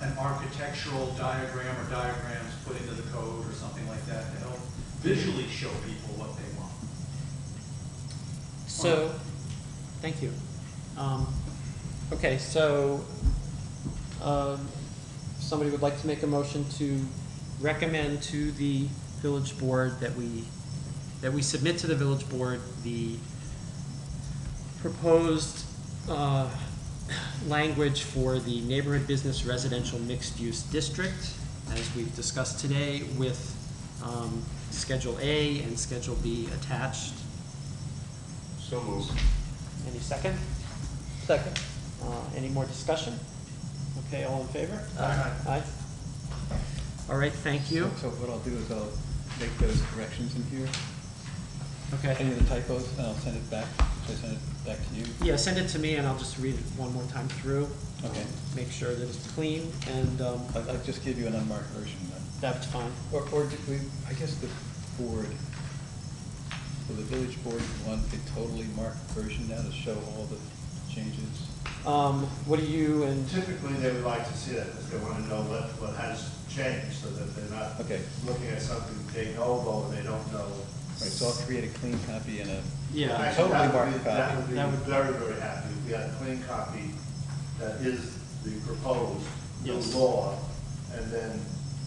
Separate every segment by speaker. Speaker 1: an architectural diagram or diagrams put into the code or something like that to help visually show people what they want.
Speaker 2: So, thank you. Um, Okay, so, um, somebody would like to make a motion to recommend to the village board that we, that we submit to the village board the proposed uh, language for the neighborhood business residential mixed-use district, as we've discussed today, with um, Schedule A and Schedule B attached.
Speaker 3: So moved.
Speaker 2: Any second? Second. Uh, any more discussion? Okay, all in favor?
Speaker 3: Aye.
Speaker 2: Aye. All right, thank you.
Speaker 4: So what I'll do is I'll make those corrections in here,
Speaker 2: Okay.
Speaker 4: any of the typos, and I'll send it back, should I send it back to you?
Speaker 2: Yeah, send it to me and I'll just read it one more time through.
Speaker 4: Okay.
Speaker 2: Make sure that it's clean and, um,
Speaker 4: I'll, I'll just give you an unmarked version then.
Speaker 2: that's fine.
Speaker 4: Or, or do we, I guess the board, will the village board want a totally marked version now to show all the changes?
Speaker 2: Um, what do you and,
Speaker 5: Typically, they would like to see that, because they want to know what, what has changed, so that they're not
Speaker 4: Okay.
Speaker 5: looking at something de novo, and they don't know.
Speaker 4: Right, so I'll create a clean copy and a,
Speaker 2: yeah,
Speaker 5: Actually, that
Speaker 4: Totally
Speaker 5: would be-
Speaker 4: marked
Speaker 5: That
Speaker 4: copy.
Speaker 5: would
Speaker 2: That would-
Speaker 5: be very, very happy, if we had a clean copy that is the proposed, new
Speaker 2: Yes.
Speaker 5: law, and then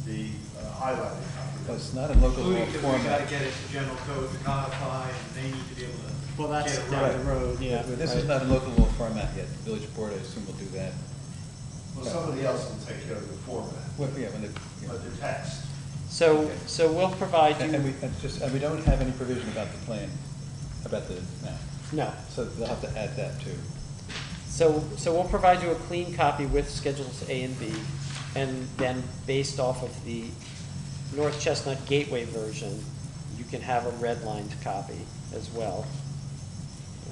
Speaker 5: the uh, highlighted copy.
Speaker 4: well, it's not in local law
Speaker 1: Including, because we gotta
Speaker 4: format.
Speaker 1: get it to general code to codify, and they need to be able to.
Speaker 2: well, that's
Speaker 1: get it
Speaker 2: down
Speaker 1: right.
Speaker 2: the road, yeah.
Speaker 4: But This is
Speaker 2: right.
Speaker 4: not in local law format yet, the village board, I assume, will do that.
Speaker 5: Well, somebody else will take care of the format,
Speaker 4: What, yeah, when the, yeah.
Speaker 5: but the text,
Speaker 2: So, so we'll provide
Speaker 4: And and we,
Speaker 2: you,
Speaker 4: and just, and we don't have any provision about the plan, about the map,
Speaker 2: no.
Speaker 4: so they'll have to add that too.
Speaker 2: So, so we'll provide you a clean copy with schedules A and B, and then based off of the North Chestnut Gateway version, you can have a redlined copy as well.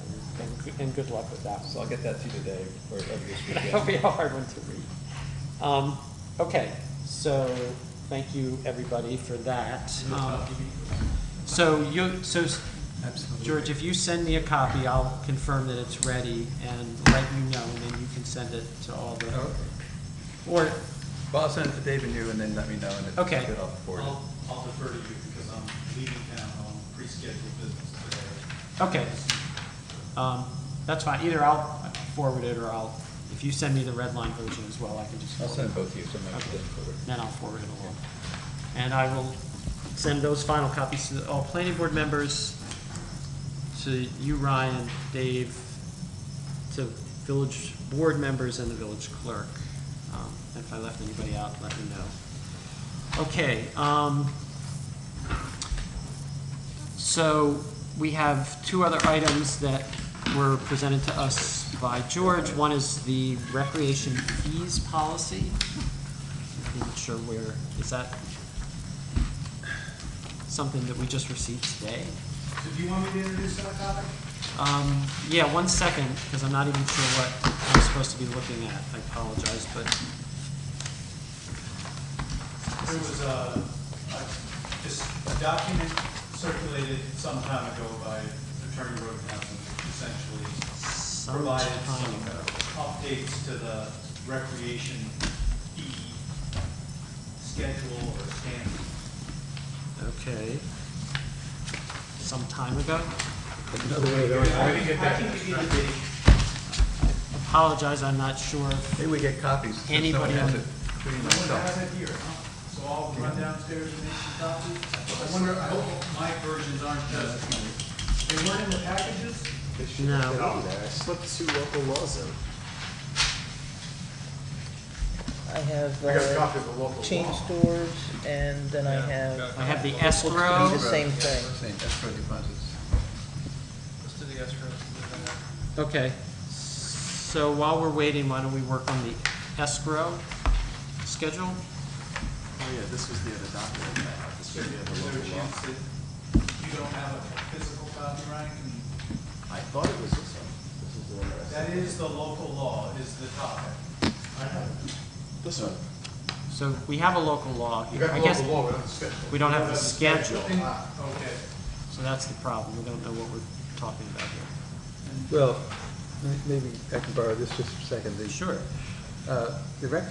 Speaker 2: And- And, good- and good luck with that
Speaker 4: So
Speaker 2: one.
Speaker 4: I'll get that to you today or over this
Speaker 2: That'll be
Speaker 4: weekend.
Speaker 2: a hard one to read. Um, okay, so, thank you, everybody, for that. Um, So you, so, s- George, if you send me a copy, I'll confirm that it's ready and let you know, and then you can send it to all the, or,
Speaker 4: Well, I'll send it to Dave and you and then let me know and if it's
Speaker 2: Okay.
Speaker 4: good, I'll forward
Speaker 1: I'll,
Speaker 4: it.
Speaker 1: I'll defer to you, because I'm leaving town on pre-scheduled business today.
Speaker 2: okay. Um, that's fine, either I'll forward it, or I'll, if you send me the red line version as well, I can just
Speaker 4: I'll
Speaker 2: forward
Speaker 4: send both of you, so I'm not
Speaker 2: Okay.
Speaker 4: getting forward.
Speaker 2: then I'll forward it along. And I will send those final copies to all planning board members, to you, Ryan, Dave, to village board members and the village clerk. Um, If I left anybody out, let me know. Okay, um, so we have two other items that were presented to us by George. One is the recreation fees policy. I'm not sure where, is that something that we just received today?
Speaker 1: So do you want me to introduce that topic?
Speaker 2: Um, yeah, one second, because I'm not even sure what I'm supposed to be looking at. I apologize, but,
Speaker 1: There was a, a- just a document circulated some time ago by Attorney Rodenhouse, essentially
Speaker 2: Some
Speaker 1: provided
Speaker 2: time
Speaker 1: some
Speaker 2: ago.
Speaker 1: updates to the recreation fee schedule or standard.
Speaker 2: okay. Some time
Speaker 1: I
Speaker 2: ago.
Speaker 1: can give you the date.
Speaker 2: Apologize, I'm not sure. if-
Speaker 4: Maybe we get copies. since no one
Speaker 2: Anybody
Speaker 4: has
Speaker 2: on-
Speaker 4: it, including
Speaker 1: No one
Speaker 4: myself.
Speaker 1: has it here, huh? So I'll run downstairs and make some copies. I wonder, I hope my versions aren't just, they weren't in the packages?
Speaker 2: No.
Speaker 6: I have
Speaker 5: I got a
Speaker 6: uh,
Speaker 5: copy of the local law.
Speaker 6: chain stores, and then I have,
Speaker 2: I have the
Speaker 6: do
Speaker 2: escrow.
Speaker 6: the same thing.
Speaker 4: Same, escrow deposits.
Speaker 2: Okay, so while we're waiting, why don't we work on the escrow schedule?
Speaker 3: Oh,
Speaker 1: Is there a chance that you don't have a physical copy, Ryan? Can-
Speaker 3: I thought it was this one. This is the one that I
Speaker 1: That is the local law, is the topic.
Speaker 5: I have it.
Speaker 3: This one.
Speaker 2: So we have a local law
Speaker 5: We
Speaker 2: here.
Speaker 5: got
Speaker 2: I
Speaker 5: the
Speaker 2: guess
Speaker 5: local law, we don't have the
Speaker 2: we
Speaker 5: schedule.
Speaker 2: don't have the schedule,
Speaker 1: Ah, Okay.
Speaker 2: so that's the problem. We don't know what we're talking about here.
Speaker 7: Well, may- maybe I can borrow this just for a second. The,
Speaker 2: Sure.
Speaker 7: uh, The rec